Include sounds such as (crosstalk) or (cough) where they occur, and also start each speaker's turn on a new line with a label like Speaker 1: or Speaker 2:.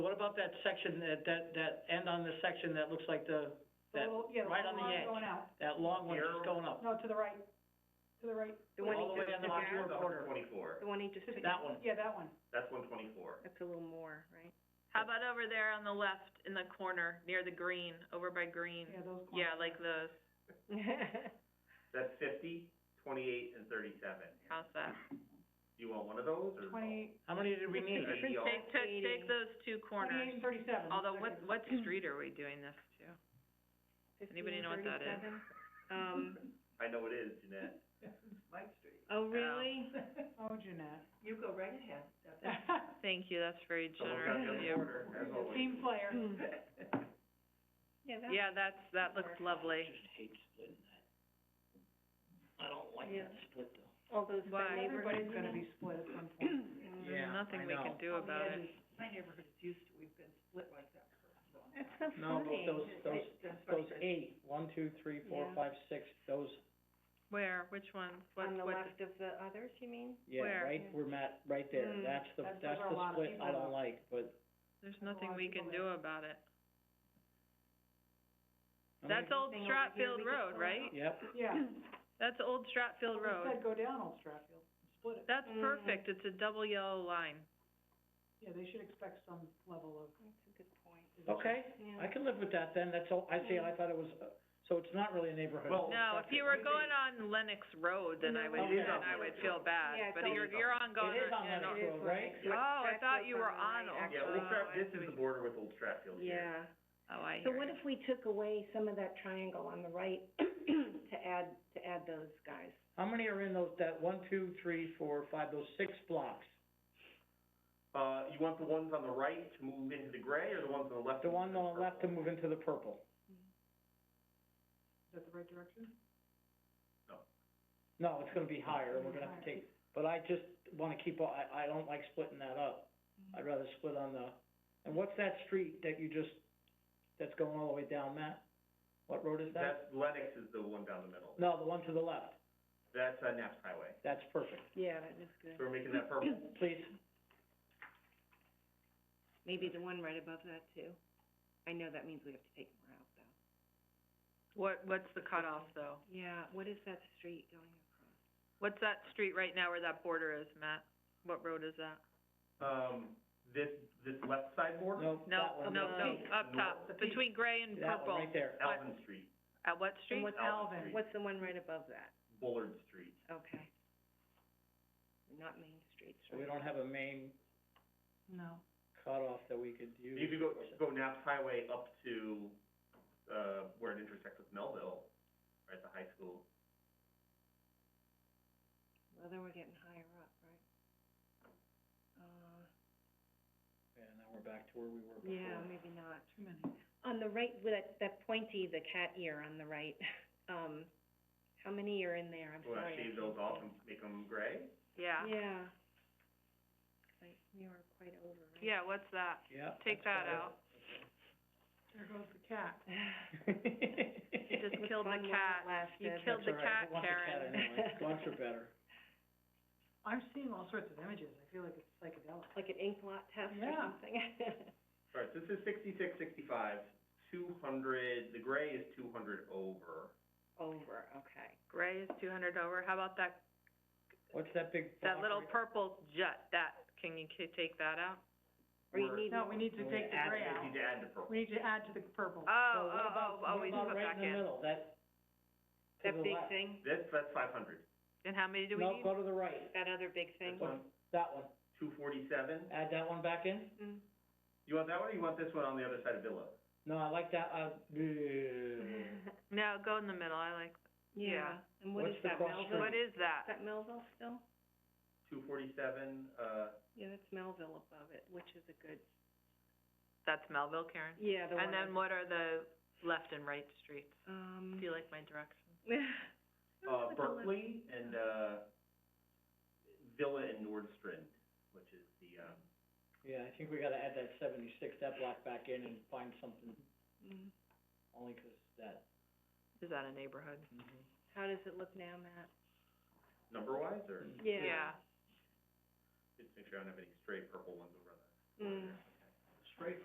Speaker 1: about that section, that, that, that end on the section that looks like the, that,
Speaker 2: little- yeah,
Speaker 1: right on the edge.
Speaker 2: line Going out,
Speaker 1: that long one that's going up?
Speaker 2: no, to the right, to the right.
Speaker 3: The one he
Speaker 1: All the way
Speaker 3: just
Speaker 1: on the
Speaker 3: took
Speaker 1: left
Speaker 3: out?
Speaker 1: rear quarter.
Speaker 3: The one he just took
Speaker 1: That one.
Speaker 2: Yeah, that one.
Speaker 4: That's one twenty-four.
Speaker 3: That's a little more, right?
Speaker 5: How about over there on the left in the corner, near the green, over by green?
Speaker 2: Yeah, those corners.
Speaker 5: Yeah, like the,
Speaker 4: That's fifty, twenty-eight, and thirty-seven.
Speaker 5: how's that?
Speaker 4: You want one of those, or? no?
Speaker 2: Twenty-eight,
Speaker 1: How many did we need?
Speaker 4: Maybe
Speaker 3: Different
Speaker 4: y'all-
Speaker 5: Take, take,
Speaker 3: Eighty.
Speaker 5: take those two
Speaker 2: twenty-eight and
Speaker 5: corners.
Speaker 2: thirty-seven.
Speaker 5: Although, what,
Speaker 2: Okay.
Speaker 5: what street are we doing this to? Anybody know what that is?
Speaker 3: 1537? Um,
Speaker 4: I know it is, Jeanette.
Speaker 3: oh,
Speaker 5: (laughs)
Speaker 3: really?
Speaker 2: Oh, Jeanette.
Speaker 6: You go right ahead, that's it. (laughs)
Speaker 5: Thank you, that's very
Speaker 4: Someone's got the other
Speaker 5: generous of you.
Speaker 4: quarter, as always.
Speaker 2: Team player.
Speaker 3: Hmm. Yeah, that,
Speaker 5: Yeah, that's, that looks lovely.
Speaker 1: hate splitting that. I don't like
Speaker 3: Yeah.
Speaker 1: split though.
Speaker 3: all those
Speaker 5: Why?
Speaker 3: by neighborhoods.
Speaker 2: Everybody's gonna be split at some point.
Speaker 3: (clears throat)
Speaker 5: There's
Speaker 1: Yeah, I
Speaker 5: nothing we
Speaker 1: know.
Speaker 5: can do
Speaker 6: On the
Speaker 5: about it.
Speaker 6: edges. My neighborhood is used to, we've been split like that for a long time.
Speaker 3: That's so funny.
Speaker 1: No, but those, those,
Speaker 6: That's funny,
Speaker 1: those eight, one, two, three, four,
Speaker 3: Yeah.
Speaker 1: five, six, those,
Speaker 5: Where, which ones? What,
Speaker 3: On the
Speaker 5: what,
Speaker 3: left of the others, you mean?
Speaker 1: yeah,
Speaker 5: Where?
Speaker 1: right, we're met, right there,
Speaker 3: Mm,
Speaker 1: that's the,
Speaker 2: that's- those
Speaker 1: that's
Speaker 2: are a lot
Speaker 1: the split
Speaker 2: of
Speaker 1: I
Speaker 2: people.
Speaker 1: don't like, but.
Speaker 5: there's
Speaker 2: a lot
Speaker 5: nothing
Speaker 2: of
Speaker 5: we
Speaker 2: people
Speaker 5: can
Speaker 2: there.
Speaker 5: do about it.
Speaker 1: I
Speaker 5: That's
Speaker 1: mean,
Speaker 5: Old
Speaker 3: Thing over here we
Speaker 5: Stratfield
Speaker 3: could
Speaker 5: Road,
Speaker 3: pull
Speaker 5: right?
Speaker 1: Yep,
Speaker 2: Yeah.
Speaker 3: (clears throat)
Speaker 5: That's Old Stratfield
Speaker 2: Well,
Speaker 5: Road.
Speaker 2: They said go down Old Stratfield, split it.
Speaker 5: That's
Speaker 3: Mm.
Speaker 5: perfect, it's a double yellow line.
Speaker 2: Yeah, they should expect some level of,
Speaker 3: That's a good point.
Speaker 1: okay, I
Speaker 3: Yeah.
Speaker 1: can live with that then, that's all, I see, I thought it was, uh, so it's not really a neighborhood.
Speaker 4: Well-
Speaker 5: No, if you were going on Lennox Road, then I would,
Speaker 1: No, it is
Speaker 5: then
Speaker 1: on
Speaker 5: I would feel
Speaker 3: Yeah,
Speaker 5: bad,
Speaker 3: it's
Speaker 5: but
Speaker 3: on-
Speaker 5: you're, you're on going on,
Speaker 1: Oh, It is on
Speaker 5: you
Speaker 1: Lennox
Speaker 5: know.
Speaker 3: It is
Speaker 1: Road,
Speaker 3: what
Speaker 1: right?
Speaker 3: it's
Speaker 5: Oh,
Speaker 3: like.
Speaker 5: I
Speaker 3: That's
Speaker 5: thought you
Speaker 3: what's
Speaker 5: were
Speaker 3: on the
Speaker 5: on Old
Speaker 3: line,
Speaker 4: Yeah,
Speaker 3: actually.
Speaker 4: Old
Speaker 1: uh,
Speaker 5: Oh,
Speaker 4: Strat,
Speaker 5: I
Speaker 4: this is
Speaker 5: see.
Speaker 4: the border with Old Stratfield here.
Speaker 3: Yeah.
Speaker 5: Oh, I hear
Speaker 3: So what
Speaker 5: you.
Speaker 3: if we took away some of that triangle on the right (clears throat) to add, to add those guys?
Speaker 1: How many are in those, that one, two, three, four, five, those six blocks?
Speaker 4: Uh, you want the ones on the right to move into the gray, or the ones on the left?
Speaker 1: The
Speaker 4: to move
Speaker 1: one
Speaker 4: into
Speaker 1: on the left to
Speaker 4: purple?
Speaker 1: move into the purple?
Speaker 2: is that the right direction?
Speaker 1: No, it's gonna be higher, and we're gonna have to take, but I just wanna keep, all- I, I don't like splitting that up.
Speaker 5: Mm-hmm.
Speaker 1: I'd rather split on the, and what's that street that you just, that's going all the way down, Matt? What road is that?
Speaker 4: That's, Lennox is the one down the middle.
Speaker 1: No, the one to the left,
Speaker 4: That's, uh, Naps Highway.
Speaker 1: that's perfect,
Speaker 3: Yeah, that is good.
Speaker 4: So we're making that purple.
Speaker 1: (clears throat) please,
Speaker 3: Maybe the one right above that too. I know that means we have to take more out though.
Speaker 5: What, what's the cutoff though?
Speaker 3: Yeah, what is that street going across?
Speaker 5: What's that street right now where that border is, Matt? What road is that?
Speaker 4: Um, this, this left side border?
Speaker 1: no,
Speaker 5: No,
Speaker 1: that one.
Speaker 5: no,
Speaker 3: up
Speaker 5: no,
Speaker 4: top.
Speaker 5: up top,
Speaker 2: The peak.
Speaker 5: between gray and
Speaker 1: That one
Speaker 5: purple.
Speaker 1: right there,
Speaker 4: Alvin Street,
Speaker 5: At what
Speaker 3: And
Speaker 5: street?
Speaker 3: what's,
Speaker 4: Alvin
Speaker 2: Alvin.
Speaker 4: Street,
Speaker 3: what's the one right above that?
Speaker 4: Bullard Street.
Speaker 3: Okay. Not Main Street,
Speaker 1: so we don't have a main
Speaker 2: No.
Speaker 1: cutoff that we could use.
Speaker 4: You could go, go Naps Highway up to, uh, where it intersects with Melville, right at the high school.
Speaker 3: Well, then we're getting higher up, right? Uh,
Speaker 1: Yeah, now we're back to where we were before.
Speaker 3: yeah, maybe not.
Speaker 2: Too many.
Speaker 3: On the right, with that, that pointy, the cat ear on the right, (laughs) um, how many are in there? I'm
Speaker 4: You Wanna
Speaker 3: sorry. I
Speaker 4: shave
Speaker 3: can't
Speaker 4: those off
Speaker 3: see.
Speaker 4: and make them gray?
Speaker 5: Yeah,
Speaker 3: Yeah. 'Cause I- we were quite over, right? (laughs)
Speaker 5: yeah, what's that?
Speaker 1: Yeah.
Speaker 5: Take that
Speaker 1: that's
Speaker 5: out.
Speaker 2: There goes the cat.
Speaker 1: better.
Speaker 5: You just
Speaker 3: It was
Speaker 5: killed the
Speaker 3: fun while it
Speaker 5: cat. You
Speaker 3: lasted.
Speaker 5: killed
Speaker 1: That's
Speaker 5: the
Speaker 1: all right.
Speaker 5: cat,
Speaker 1: Who wants a cat
Speaker 5: Karen.
Speaker 1: anyway? Dogs are better.
Speaker 2: I'm seeing all sorts of images, I feel like it's psychedelic.
Speaker 3: Like an ink blot test or
Speaker 2: Yeah.
Speaker 3: something? (laughs)
Speaker 4: All right, so this is sixty-six, sixty-five, two hundred, the gray is two hundred over.
Speaker 3: Over, okay.
Speaker 5: Gray is two hundred over, how about that,
Speaker 1: What's that big?
Speaker 5: that
Speaker 1: block
Speaker 5: little
Speaker 1: right-
Speaker 5: purple jut, that, can you ca- take that out?
Speaker 3: Or you
Speaker 4: We're-
Speaker 3: need
Speaker 2: No, we need to
Speaker 1: We
Speaker 2: take the
Speaker 1: add-
Speaker 2: gray
Speaker 4: We
Speaker 2: out.
Speaker 4: need to add the purple.
Speaker 2: We need to add to the purple.
Speaker 1: So
Speaker 5: Oh,
Speaker 1: what
Speaker 5: oh,
Speaker 1: about-
Speaker 5: oh, oh, we just put
Speaker 1: What about right
Speaker 5: back
Speaker 1: in the
Speaker 5: in.
Speaker 1: middle, that, to
Speaker 3: that
Speaker 1: the
Speaker 3: big
Speaker 1: left.
Speaker 3: thing,
Speaker 4: This, that's five hundred.
Speaker 5: And how many do we
Speaker 1: No,
Speaker 5: need?
Speaker 1: go to the right,
Speaker 3: that other big thing.
Speaker 4: This one,
Speaker 1: that one,
Speaker 4: two forty-seven.
Speaker 1: add that one back in?
Speaker 3: Mm.
Speaker 4: You want that one, or you want this one on the other side of Villa?
Speaker 1: No, I like that, uh,
Speaker 5: (laughs)
Speaker 1: bleh.
Speaker 5: No, go in the middle, I like,
Speaker 3: Mm-hmm. Yeah,
Speaker 5: Yeah.
Speaker 3: and what
Speaker 1: What's
Speaker 3: is
Speaker 1: the
Speaker 3: that,
Speaker 1: cross
Speaker 3: Melville?
Speaker 1: street?
Speaker 5: what is
Speaker 3: Is
Speaker 5: that?
Speaker 3: that Melville still?
Speaker 4: Two forty-seven, uh,
Speaker 3: Yeah, that's Melville above it, which is a good,
Speaker 5: That's Melville, Karen?
Speaker 3: yeah, the one.
Speaker 5: And then what are the left and right streets?
Speaker 3: Um.
Speaker 5: Do you like my direction?
Speaker 3: (laughs)
Speaker 4: uh, Berkeley and, uh, Villa and Nordstrand, which is the, um,
Speaker 1: yeah, I think we gotta add that seventy-six, that block back in and find something,
Speaker 3: Mm.
Speaker 1: only 'cause that,
Speaker 5: Is that a neighborhood?
Speaker 1: mhm.
Speaker 3: How does it look now, Matt?
Speaker 4: number-wise, or?
Speaker 1: Mm.
Speaker 3: Yeah.
Speaker 5: Yeah.
Speaker 4: Just make sure I don't have any stray purple ones over on that.
Speaker 3: Mm.